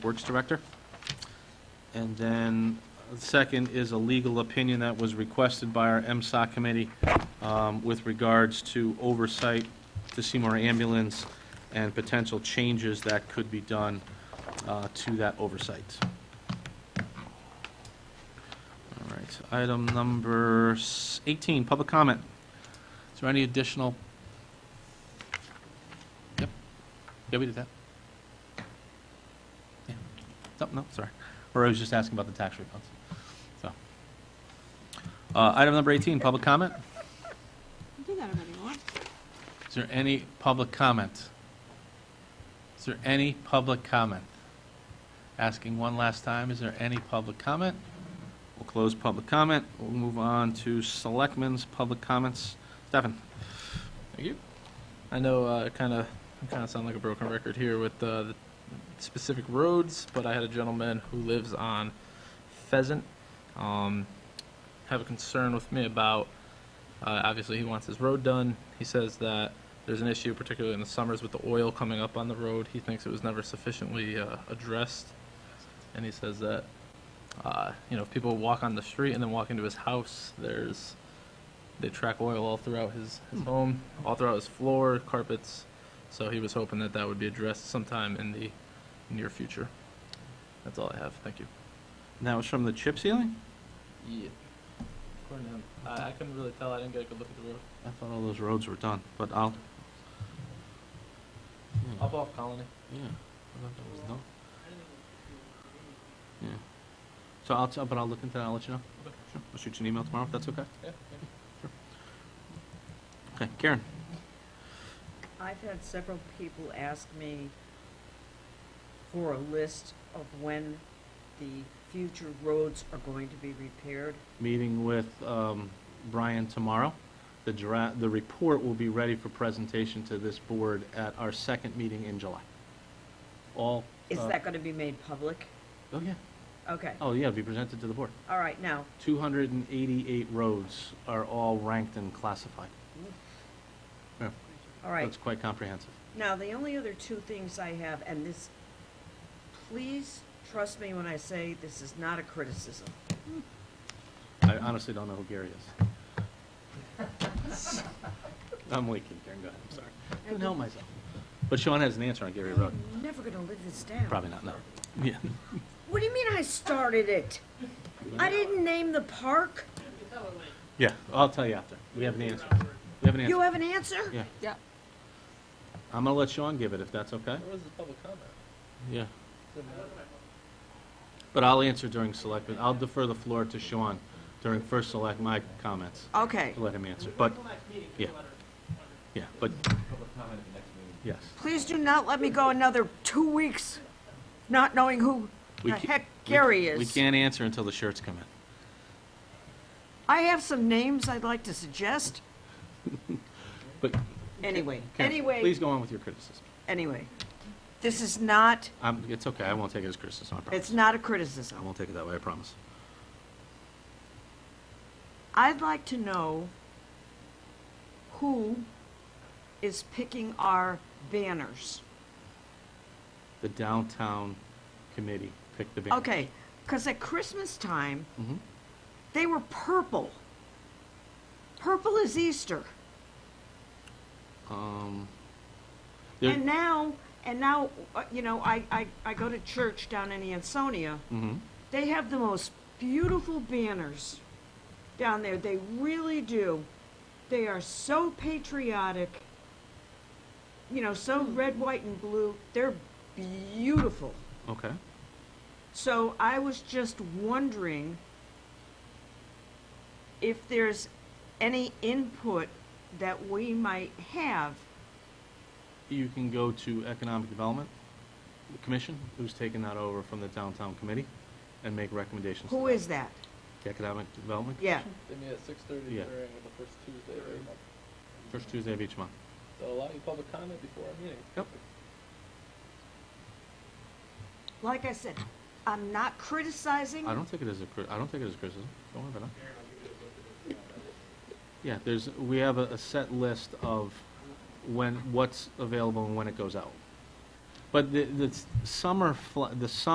Works Director. And then, uh, second is a legal opinion that was requested by our MSOC committee um, with regards to oversight to Seymour Ambulance and potential changes that could be done uh, to that oversight. All right, item number s- 18, public comment. Is there any additional? Yep. Yeah, we did that. Yeah. No, Oh, no, sorry. Or I was just asking about the tax refunds. So. Uh, Item number 18, public comment. I do that already, Laura. Is there any public comment? Is there any public comment? Asking one last time, is there any public comment? We'll close public comment. We'll move on to selectmen's public comments. Stefan? Thank you. I know uh, it kind of kind of sound like a broken record here with uh, the specific roads, but I had a gentleman who lives on Pheasant um, have a concern with me about. Uh, obviously, he wants his road done. He says that there's an issue, particularly in the summers, with the oil coming up on the road. He thinks it was never sufficiently uh, addressed, and he says that uh, you know if people walk on the street and then walk into his house, there's they track oil all throughout his, his home, all throughout his floor, carpets. So he was hoping that that would be addressed sometime in the near future. That's all I have. Thank you. And That was from the chip ceiling? Yeah. I, I couldn't really tell. I didn't get a good look at the road. I thought all those roads were done, but I'll, Up off Colony. yeah, I thought that was done. Yeah. So I'll, t- but I'll look into that, I'll let you know. Okay. Sure. I'll shoot you an email tomorrow, if that's okay. Yeah. Okay, Karen? I've had several people ask me for a list of when the future roads are going to be repaired. meeting with um, Brian tomorrow. The draft, the report will be ready for presentation to this board at our second meeting in July. All. Is uh, that gonna be made public? Oh, yeah. Okay, Oh, yeah, it'll be presented to the board. all right, now, 288 roads are all ranked and classified. Yeah, all right. That's quite comprehensive. Now, the only other two things I have, and this, please trust me when I say this is not a criticism. I honestly don't know who Gary is. I'm leaking, Karen, go ahead, I'm sorry. Couldn't help myself. But Sean has an answer on Gary Road. I'm never gonna live this down. Probably not, no. Yeah. What do you mean I started it? I didn't name the park. Yeah, I'll tell you after. We have an answer. We have an You answer. have an answer? Yeah. Yeah. I'm gonna let Sean give it if that's okay. Where was the public comment? Yeah. But I'll answer during selectmen. I'll defer the floor to Sean during first select my comments. Okay, to Let him answer, but, yeah. Yeah, but, yes. please do not let me go another two weeks not knowing who We the ca- heck we- Gary We is. can't answer until the shirts come in. I have some names I'd like to suggest. But, Anyway, Karen, anyway, please go on with your criticism. anyway. This is not, Um, it's okay, I won't take it as criticism, I promise. it's not a I criticism. won't take it that way, I promise. I'd like to know who is picking our banners. The downtown committee picked the banner. Okay, because at Christmas time, Mhm. they were purple. Purple is Easter. Um, there- And now, and now, uh, you know, I, I, I go to church down in Ansonia. mhm. They have the most beautiful banners down there. They really do. They are so patriotic. You know, so red, white, and blue. They're beautiful. Okay. So I was just wondering if there's any input that we might have. You can go to Economic Development Commission, who's taken that over from the Downtown Committee, and make recommendations. to Who them. is that? The Economic Development, Yeah. They meet at 6:30 Yeah. during the first Tuesday of every month. first Tuesday of each month. So allow you public comment before our meeting. Yep. Like I said, I'm not criticizing. I don't take it as a cri- I don't take it as criticism. Don't worry about it. Yeah, there's, we have a, a set list of when, what's available and when it goes out. But the, the s- summer, fl- the summer